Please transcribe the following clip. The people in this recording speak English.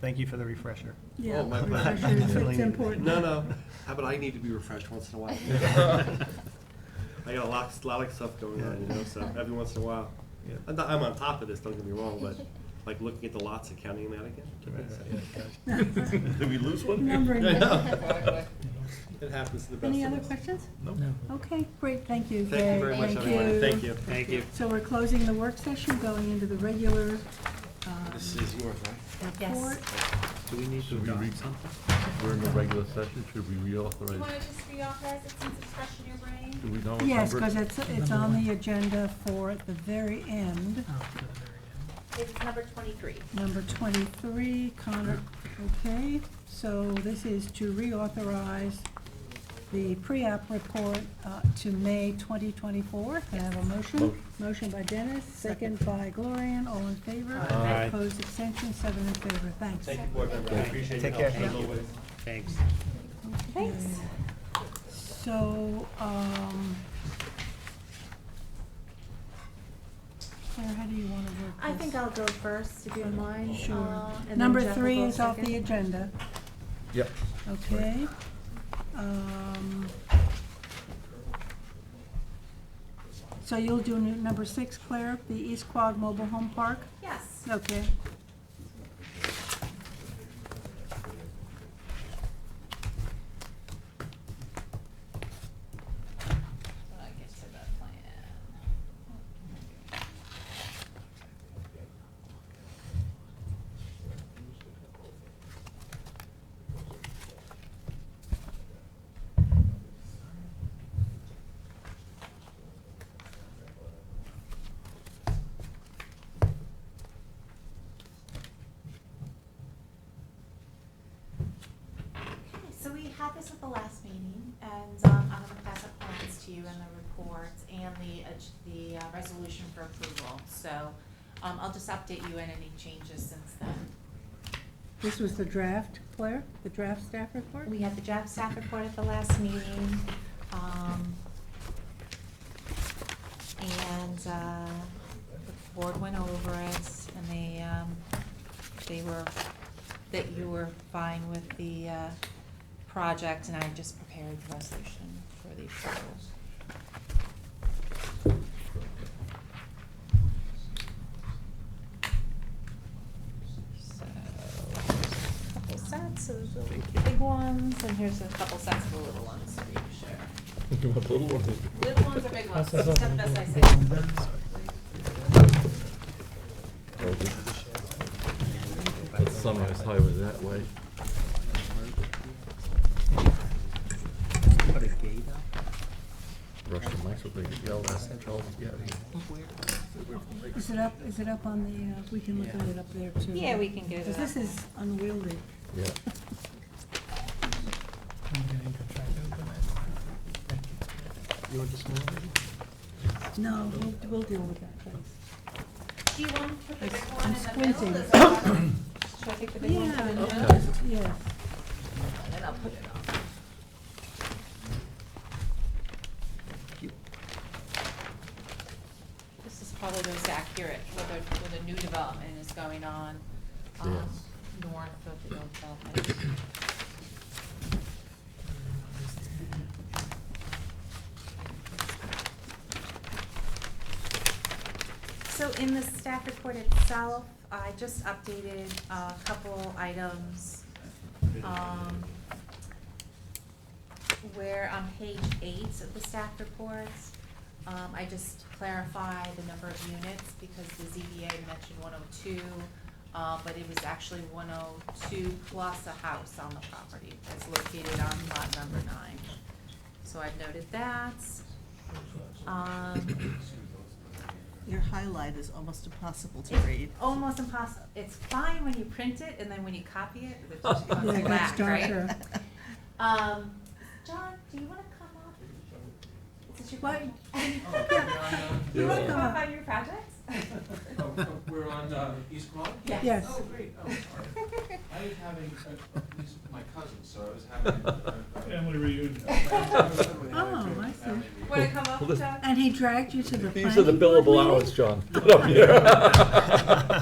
Thank you for the refresher. Yeah, Oh, my I'm pleasure. sure it's Definitely. important. No, no, how about I need to be refreshed once in a while? I got a lot, lot of stuff going on, you know, so every once in a while. Yeah. I'm, not, I'm on top of this, don't get me wrong, but like looking at the lots and counting them out again. Did we lose one? Numbering. uh, I know. It happens to the best of us. Any other questions? No. Okay, great, thank you. Thank you very much, Thank everyone. you. Thank you. Thank you. So we're closing the work session, going into the regular um, This is yours, right? Oh, report. Do we need to Should we adopt read something? We're in a regular session, should we Do you reauthorize? want to just reauthorize it since it's fresh in your brain? Do we know what Yes, number? because it's, it's on the agenda for the very end, It's number twenty-three. number twenty-three, Connor, okay? So this is to reauthorize the pre-app report uh, to May twenty twenty-four. Can I have a motion? Motion. Motion by Dennis, second by Gloria, all in favor? Aye. Opposed, extension, seven in favor, thanks. Thank you, board member, I appreciate Take your care. help as always. Thanks. Thanks. So, um, Claire, how do you want to work this? I think I'll go first, if you don't mind. Sure. uh, and then Number Jeff will three go is off the second. agenda, Yep. okay? Um, So you'll do nu- number six, Claire, the East Quogue Mobile Home Park? Yes. Okay. When I get to that plan. Okay, so we had this at the last meeting, and um, I'm gonna pass up plans to you and the report and the, ag- the uh, resolution for approval. So um, I'll just update you on any changes since then. This was the draft, Claire, the draft staff report? We had the job staff report at the last meeting. um, And uh, the board went over it, and they, um, they were, that you were fine with the uh, project, and I just prepared the resolution for the approval. So, here's a couple sets of the big ones, and here's a couple sets of the little ones for you to share. Little ones or big ones, That's the best I say. Oh, Let's summarize highway that way. Put a gate up? Russian mics will bring it, yell, that's Charles, yeah. Is it up, is it up on the, uh, we can look at it up there too? Yeah, we can get it Because this up. is unwieldy. Yeah. You want to smell it? No, we'll, we'll deal with that, thanks. Do you want to put the big I'm one in the squinting. middle? Does that work? Should I take the big one Yeah, from the middle? Okay. Yes. And then I'll put it on. This is probably most accurate, where the, where the new development is going on, um, north of the old development. So in the staff report itself, I just updated a couple items. Um, Where on page eight of the staff reports, um, I just clarify the number of units because the ZBA mentioned one oh two, uh, but it was actually one oh two plus a house on the property that's located on lot number nine. So I've noted that. Um, Your highlight is almost impossible to It's read. Almost impossible. It's fine when you print it, and then when you copy it, it's just Yeah, it black, gets right? darker. Um, John, do you wanna come up? Since you're What? going- You Yeah. wanna come up Yeah. on your projects? Oh, oh, We're on uh, East Quogue? Yes. Oh, great, oh, sorry. I was having, uh, he's my cousin, so I was having. uh, Family reunion. Oh, I see. Wanna come up, Well, this- John? And he dragged you to the planning These are the billable board hours, meeting? John. Put up here.